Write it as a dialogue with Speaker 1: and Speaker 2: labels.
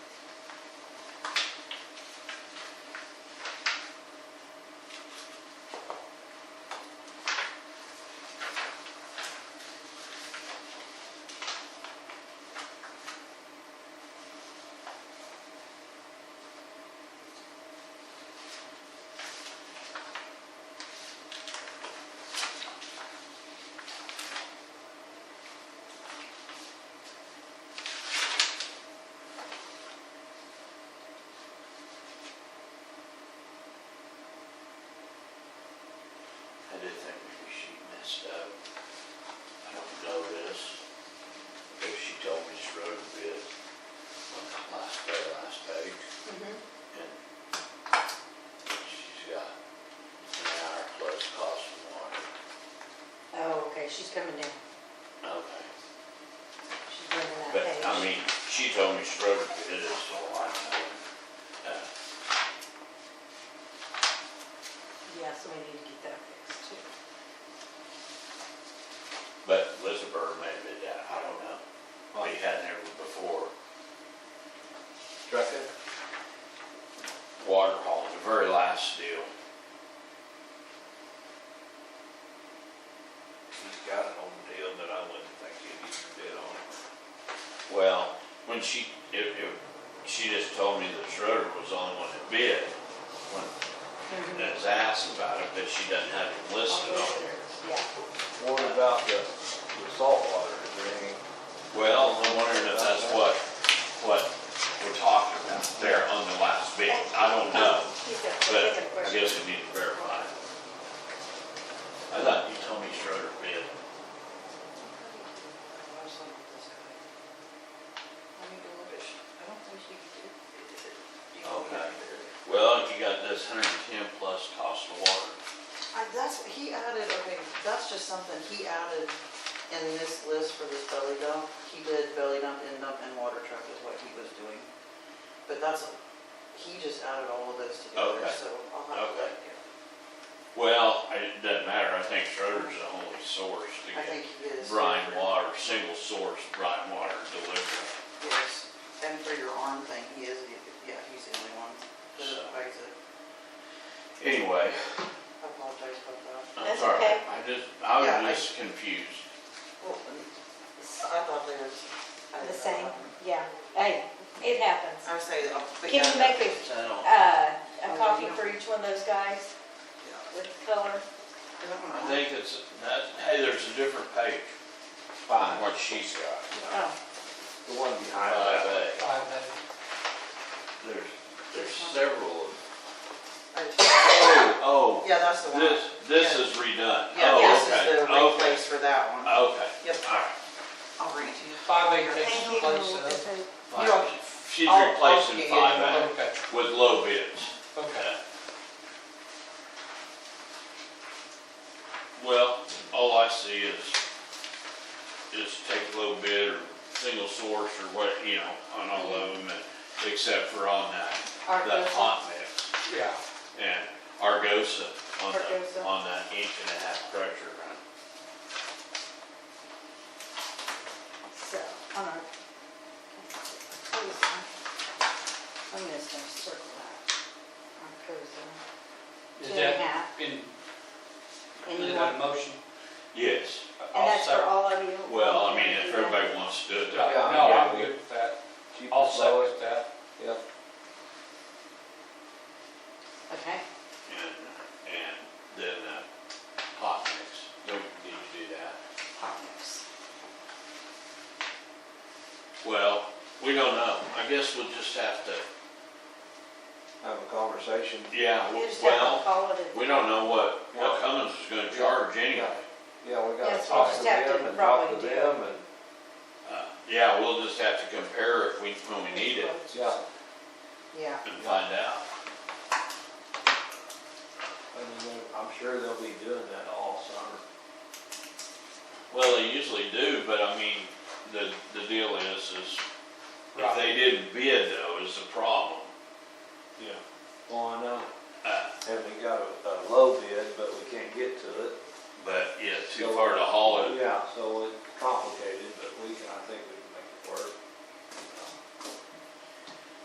Speaker 1: do think maybe she messed up. I don't know this, but she told me she wrote a bit on the last, very last page,
Speaker 2: Mm-hmm.
Speaker 1: and she's got an hour plus cost of water.
Speaker 2: Oh, okay, she's coming down.
Speaker 1: Okay.
Speaker 2: She's bringing that
Speaker 1: But,
Speaker 2: page.
Speaker 1: I mean, she told me she wrote a bit, so I know. Uh,
Speaker 2: Yeah, so we need to get that fixed too.
Speaker 1: But Elizabeth may have been down, I don't know. We hadn't ever before.
Speaker 3: Trucking?
Speaker 1: water hole, the very last deal.
Speaker 3: He's got an old deal that I wouldn't think he'd even bid on.
Speaker 1: Well, when she, it, it, she just told me that Schroeder was the only one that bid. When that was asked about it, but she doesn't have it listed on there.
Speaker 2: Yeah,
Speaker 3: What about the, the salt water, is there any?
Speaker 1: Well, I'm wondering if that's what, what we're talking about there on the last bid. I don't know,
Speaker 2: he's got the
Speaker 1: but
Speaker 2: second
Speaker 1: I
Speaker 2: question.
Speaker 1: guess we need to verify. I thought you told me Schroeder bid.
Speaker 4: I need to look at, I don't think she did.
Speaker 1: Okay. Well, you got this hundred and ten plus cost of water.
Speaker 4: I, that's, he added, okay, that's just something he added in this list for this belly dump. He did belly dump, end dump, and water truck is what he was doing. But that's, he just added all of those together,
Speaker 1: Okay.
Speaker 4: so I'll have to
Speaker 1: Okay.
Speaker 4: look here.
Speaker 1: Well, it doesn't matter, I think Schroeder's the only source to
Speaker 4: I think
Speaker 1: get
Speaker 4: he is.
Speaker 1: brine water, single source brine water delivery.
Speaker 4: Yes, and for your arm thing, he is, the- yeah, he's the only one that
Speaker 1: So.
Speaker 4: advised it.
Speaker 1: Anyway,
Speaker 4: I apologize about that.
Speaker 1: I'm
Speaker 2: That's
Speaker 1: sorry,
Speaker 2: okay.
Speaker 1: I just, I
Speaker 4: Yeah, I-
Speaker 1: was just confused.
Speaker 4: Well, I thought they was. I
Speaker 2: The same,
Speaker 4: didn't know that.
Speaker 2: yeah. Hey, it happens.
Speaker 4: I would say. uh, but
Speaker 2: Can
Speaker 4: yeah,
Speaker 2: you make
Speaker 4: that's-
Speaker 1: I
Speaker 2: Uh, a copy for each one of those guys
Speaker 4: yeah.
Speaker 2: with color.
Speaker 4: That one, I
Speaker 1: think it's, that, hey, there's a different page on
Speaker 3: Fine.
Speaker 1: what she's got.
Speaker 2: Oh,
Speaker 3: The one behind
Speaker 1: Five
Speaker 3: that.
Speaker 1: A.
Speaker 5: uh,
Speaker 1: There's, there's several. of-
Speaker 4: I-
Speaker 1: Oh,
Speaker 4: Yeah, that's the
Speaker 1: oh,
Speaker 4: one.
Speaker 1: this, this is redone.
Speaker 4: Yeah, this is the
Speaker 1: Oh, okay, okay,
Speaker 4: replace for that one.
Speaker 1: Okay.
Speaker 4: Yep.
Speaker 1: All right.
Speaker 4: I'll bring it to you.
Speaker 5: Five acre
Speaker 2: thank you.
Speaker 5: place,
Speaker 2: That's
Speaker 5: uh,
Speaker 2: a-
Speaker 1: Fine.
Speaker 4: You're okay.
Speaker 1: She's
Speaker 4: I'll- I'll
Speaker 1: replacing
Speaker 4: get you
Speaker 1: five
Speaker 4: one.
Speaker 1: A
Speaker 5: okay,
Speaker 1: with low bids. Uh,
Speaker 5: okay.
Speaker 1: Well, all I see is, is take a little bit or single source or what, you know, on all of them, and- except for on that, that hot mix.
Speaker 5: Yeah,
Speaker 1: And Argosa on the,
Speaker 2: Argosa.
Speaker 1: on that inch and a half pressure run.
Speaker 2: So, on our. I'm gonna start circle that. Our cozy.
Speaker 5: is
Speaker 2: Two and a
Speaker 5: that
Speaker 2: half.
Speaker 5: in,
Speaker 2: And
Speaker 5: is
Speaker 2: you
Speaker 5: that
Speaker 2: want,
Speaker 5: a motion?
Speaker 1: Yes,
Speaker 2: and
Speaker 5: I'll
Speaker 2: that's for
Speaker 5: second.
Speaker 2: all of you?
Speaker 1: well, I mean, if everybody wants to do it,
Speaker 5: Yeah,
Speaker 1: that-
Speaker 5: No, I'm good with that,
Speaker 3: Cheap
Speaker 5: I'll
Speaker 3: and lowest.
Speaker 5: second that.
Speaker 3: Yeah.
Speaker 2: Okay,
Speaker 1: and, and then, uh, hot mix, don't need to do that.
Speaker 2: partners.
Speaker 1: Well, we don't know, I guess we'll just have to,
Speaker 3: Have a conversation.
Speaker 1: yeah,
Speaker 2: You just
Speaker 1: well.
Speaker 2: have to call it a.
Speaker 1: We don't know what, what Cummins is gonna charge anyway.
Speaker 3: Yeah, we gotta
Speaker 2: Yes, we'll
Speaker 3: talk
Speaker 2: just
Speaker 3: to
Speaker 2: have to
Speaker 3: them and talk
Speaker 2: probably
Speaker 3: to
Speaker 2: do-
Speaker 3: them and,
Speaker 1: Uh, Yeah, we'll just have to compare if we, when we need it
Speaker 3: yeah.
Speaker 4: Yeah.
Speaker 1: and find out.
Speaker 3: And then I'm sure they'll be doing that all summer.
Speaker 1: Well, they usually do, but I mean, the, the deal is, is if
Speaker 5: Right.
Speaker 1: they didn't bid
Speaker 3: Uh.